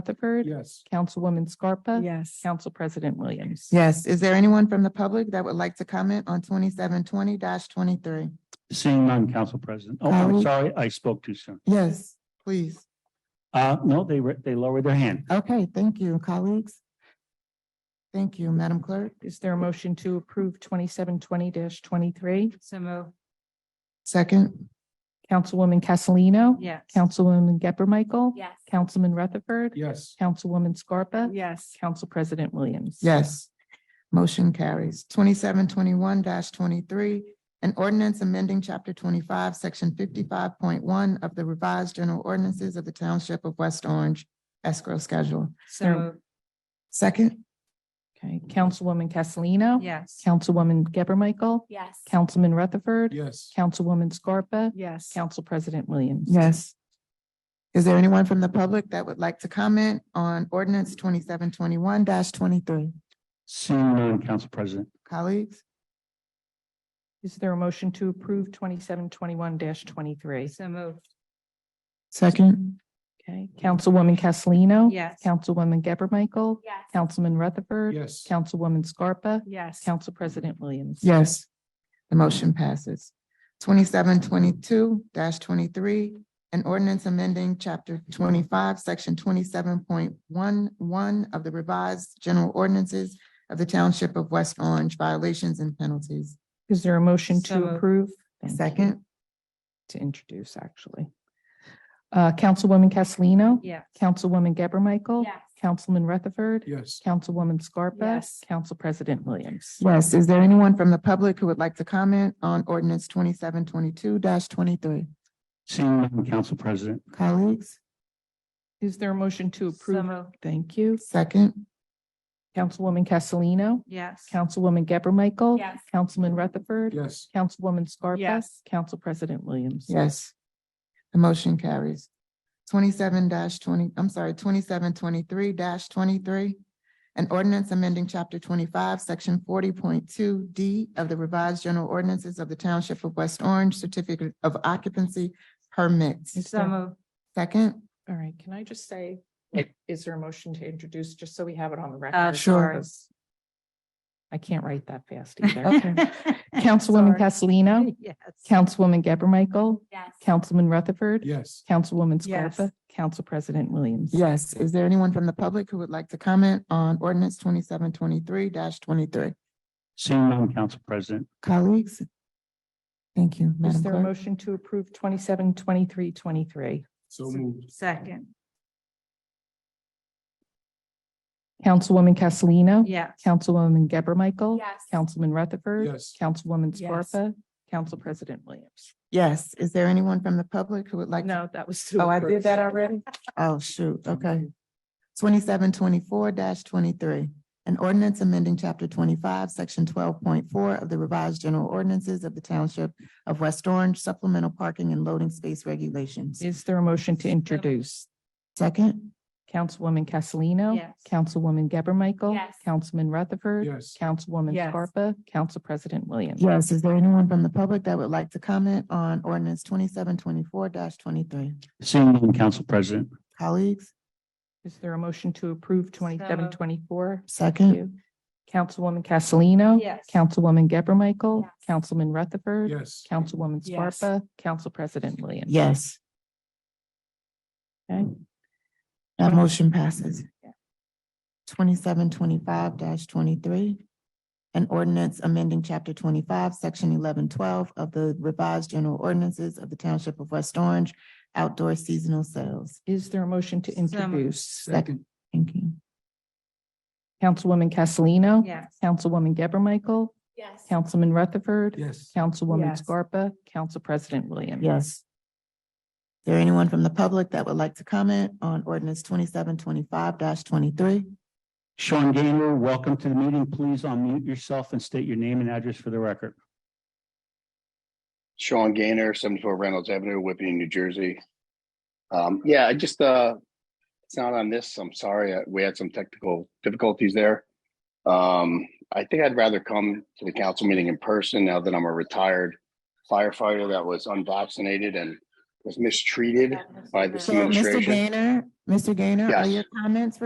Rutherford. Yes. Councilwoman Scarpa. Yes. Council President Williams. Yes, is there anyone from the public that would like to comment on twenty-seven twenty twenty-three? Seeing none, Council President. Oh, I'm Carol? sorry, I spoke too soon. Yes, please. Uh, no, they, re- they lowered their hand. Okay, thank you, colleagues. Thank you, Madam Clerk. Is there a motion to approve twenty-seven twenty twenty-three? So move. Second, Councilwoman Castellino. Yes. Councilwoman Geber Michael. Yes. Councilman Rutherford. Yes. Councilwoman Scarpa. Yes. Council President Williams. yes. Motion carries. Twenty-seven twenty-one twenty-three, an ordinance amending chapter twenty-five, section fifty-five point one of the revised general ordinances of the Township of West Orange escrow schedule. So There- moved. Second, Okay, Councilwoman Castellino. Yes. Councilwoman Geber Michael. Yes. Councilman Rutherford. Yes. Councilwoman Scarpa. Yes. Council President Williams. yes. Is there anyone from the public that would like to comment on ordinance twenty-seven twenty-one twenty-three? Seeing none, Council President. Colleagues, Is there a motion to approve twenty-seven twenty-one twenty-three? So moved. second, Okay, Councilwoman Castellino. Yes. Councilwoman Geber Michael. Yes. Councilman Rutherford. Yes. Councilwoman Scarpa. Yes. Council President Williams. yes. The motion passes. Twenty-seven twenty-two twenty-three, an ordinance amending chapter twenty-five, section twenty-seven point one one of the revised general ordinances of the Township of West Orange violations and penalties. Is there a motion So to moved. approve? Thank you. Second, To introduce, actually. Uh, Councilwoman Castellino. Yes. Councilwoman Geber Michael. Yes. Councilman Rutherford. Yes. Councilwoman Scarpa. Yes. Council President Williams. yes, is there anyone from the public who would like to comment on ordinance twenty-seven twenty-two twenty-three? Seeing none, Council President. Colleagues, Is there a motion to So approve? moved. Thank you. second, Councilwoman Castellino. Yes. Councilwoman Geber Michael. Yes. Councilman Rutherford. Yes. Councilwoman Scarpa. Yes. Council President Williams. yes. The motion carries. Twenty-seven twenty, I'm sorry, twenty-seven twenty-three twenty-three. An ordinance amending chapter twenty-five, section forty point two D of the revised general ordinances of the Township of West Orange certificate of occupancy permits. So moved. Second, All right, can I just say, Yeah. is there a motion to introduce, just so we have it on the Uh, record? sure. because I can't write that fast either. Councilwoman Castellino, Yes. Councilwoman Geber Michael, Yes. Councilman Rutherford, Yes. Councilwoman Yes. Scarpa, Council President Williams. yes, is there anyone from the public who would like to comment on ordinance twenty-seven twenty-three twenty-three? Seeing none, Council President. Colleagues? Thank you, Is Madam there a Clerk. motion to approve twenty-seven, twenty-three, twenty-three? So moved. Second. Councilwoman Castellino, Yes. Councilwoman Geber Michael, Yes. Councilman Rutherford. Yes. Councilwoman Yes. Scarpa, Council President Williams. Yes, is there anyone from the public who would like? to? No, that was. to Oh, I approve. did that already? Oh, shoot, okay. Twenty-seven twenty-four twenty-three, an ordinance amending chapter twenty-five, section twelve point four of the revised general ordinances of the Township of West Orange supplemental parking and loading space regulations. Is there a motion to introduce? Second, Councilwoman Castellino. Yes. Councilwoman Geber Michael. Yes. Councilman Rutherford. Yes. Councilwoman Yes. Scarpa, Council President Williams. yes, is there anyone from the public that would like to comment on ordinance twenty-seven twenty-four twenty-three? Seeing none, Council President. Colleagues, Is there a motion to approve twenty-seven moved. twenty-four? second, Councilwoman Castellino. Yes. Councilwoman Geber Michael. Yes. Councilman Rutherford. Yes. Councilwoman Yes. Scarpa, Council President Williams. yes, Okay. that motion passes. twenty-seven twenty-five twenty-three. An ordinance amending chapter twenty-five, section eleven twelve of the revised general ordinances of the Township of West Orange, outdoor seasonal sales. Is there a motion to So moved. introduce? Second. Thank you. Councilwoman Castellino. Yes. Councilwoman Geber Michael. Yes. Councilman Rutherford. Yes. Councilwoman Yes. Scarpa, Council President Williams. Yes. Is there anyone from the public that would like to comment on ordinance twenty-seven twenty-five twenty-three? Sean Gaynor, welcome to the meeting. Please unmute yourself and state your name and address for the record. Sean Gaynor, seventy-four Reynolds Avenue, Whippany, New Jersey. Um, yeah, I just, uh, it's not on this. I'm sorry. I- We had some technical difficulties there. Um, I think I'd rather come to the council meeting in person now that I'm a retired firefighter that was unvaccinated and was mistreated by this So, Mr. administration. Gaynor, Mr. Gaynor, are Yes. your comments